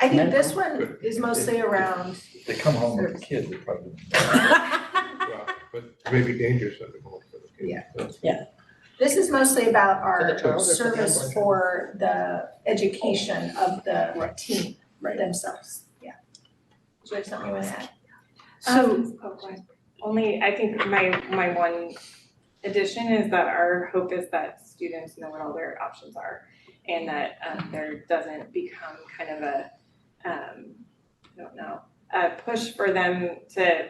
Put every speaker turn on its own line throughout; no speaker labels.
I think
Medical.
this one is mostly around.
If They come home with a kid, they probably.
Yeah, But it may be dangerous under both of those
Yeah.
cases.
This is mostly about
For
our
the child or for the
service
adult?
for the education of the team themselves, yeah. Do you have something you wanna add?
So
Um, oh, go ahead.
only, I think my, my one addition is that our hope is that students know what all their options are and that um, there doesn't become kind of a, um, I don't know, a push for them to,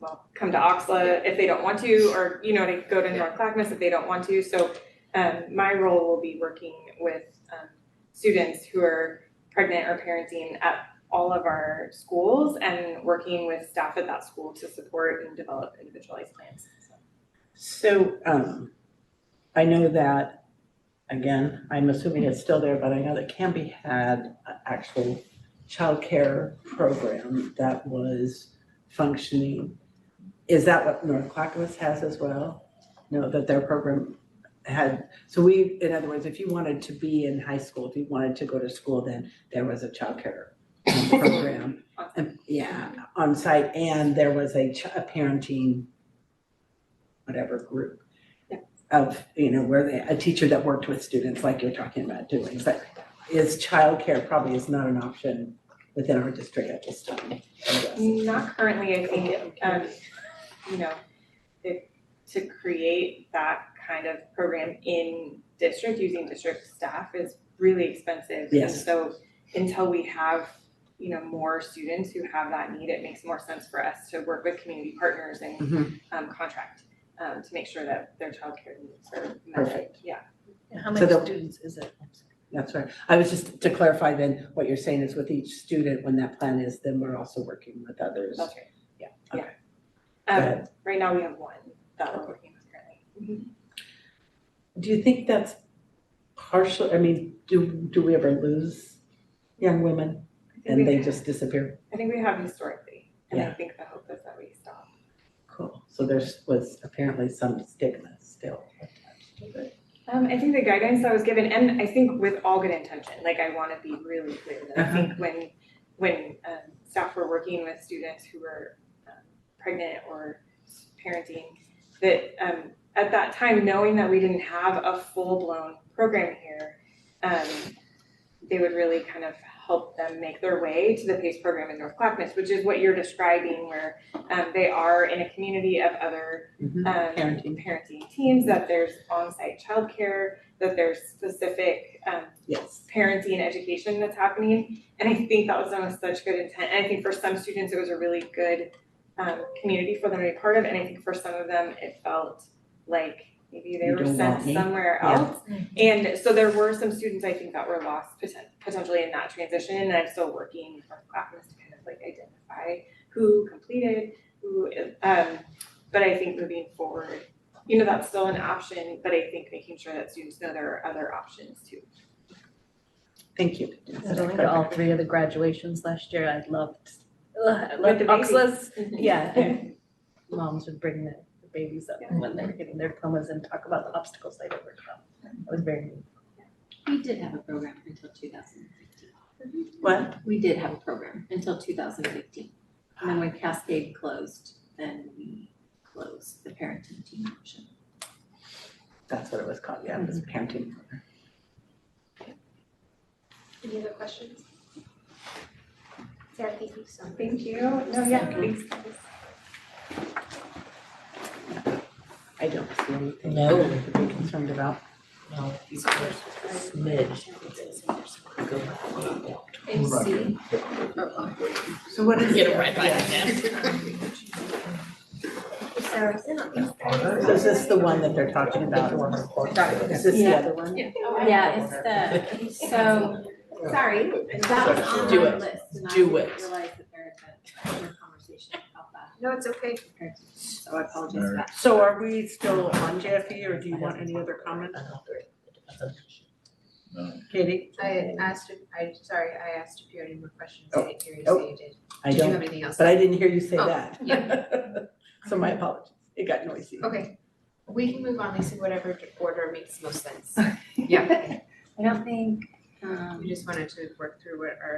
well, come to Oxla if they don't want to, or, you know, to go to North Clackamas if they don't want to. So um, my role will be working with um, students who are pregnant or parenting at all of our schools and working with staff at that school to support and develop individualized plans. So,
So, um, I know that, again, I'm assuming it's still there, but I know that Canby had an actual childcare program that was functioning. Is that what North Clackamas has as well? No, that their program had, so we, in other words, if you wanted to be in high school, if you wanted to go to school, then there was a childcare program. And, Yeah, on site, and there was a ch- a parenting whatever group
Yeah.
of, you know, where they, a teacher that worked with students like you're talking about doing, but is childcare probably is not an option within our district at this time. I guess.
Not currently, I think, um, you know, it, to create that kind of program in district, using district staff is really expensive. And
Yes.
so until we have, you know, more students who have that need, it makes more sense for us to work with community partners and
Mhm.
um, contract um, to make sure that their childcare needs are met.
Perfect.
Yeah.
How
So
many
the-
students is it? I'm sorry.
That's right. I was just, to clarify then, what you're saying is with each student, when that plan is, then we're also working with others.
That's right. Yeah.
Okay. Go
Yeah. Um,
ahead.
right now we have one that we're working with currently.
Mm-hmm. Do you think that's partial, I mean, do, do we ever lose young women
I think
and
we-
they just disappear?
I think we have historically, and I
Yeah.
think the hope is that we stop.
Cool. So there's, was apparently some stigma still attached to it.
Um, I think the guidance I was given, and I think with all good intention, like I wanna be really clear that I
Uh-huh.
think when, when, um, staff were working with students who were um, pregnant or parenting, that, um, at that time, knowing that we didn't have a full-blown program here, um, they would really kind of help them make their way to the PACE program in North Clackamas, which is what you're describing, where, um, they are in a community of other
Mhm.
um,
Parenting.
parenting teams, that there's onsite childcare, that there's specific um,
Yes.
parenting education that's happening. And I think that was done with such good intent. And I think for some students, it was a really good um, community for them to be part of. And I think for some of them, it felt like maybe they
You
were
don't
sent
want me.
somewhere
Yeah.
else. And so there were some students, I think, that were lost poten- potentially in that transition. And I'm still working with Clackamas to kind of like identify who completed, who, um, but I think moving forward, you know, that's still an option, but I think making sure that students know there are other options too.
Thank you.
I think all three of the graduations last year, I loved, ugh, I loved
the babies.
Oxla's. Yeah, and moms would bring the the babies up when they were getting their diplomas and talk about the obstacles they'd overcome. It was very neat.
We did have a program until two thousand fifteen.
What?
We did have a program until two thousand fifteen. And then when Cascade closed, then we closed the parenting team option.
That's what it was called, yeah, it was
Mm-hmm.
parenting.
Any other questions? Sarah, thank you so much.
Thank you. No, yeah, thanks.
I don't see anything
No.
to be concerned about.
No, you can smidge. Go back.
And C.
So what is?
Get it right by them.
Sarah, is it on these
So is this the one that they're talking about? Is this the
Yeah.
other one?
Yeah, it's the, so,
Sorry,
that was on
Do
my
it.
list and I
Do
didn't
it.
realize that there had been a conversation about that.
no, it's okay.
parenting team. So I apologize for that.
So are we still on JFE or do you want any other comment, Katie?
I had asked, if I, sorry, I asked if you had any more questions,
Oh,
I didn't hear you
oh.
say you did.
I
Did you have
don't,
anything else?
but I didn't hear you say
Oh,
that. So my apologies, it got noisy.
Okay, we can move on, Lisa, whatever order makes most sense.
I don't think, um.
We just wanted to work through what our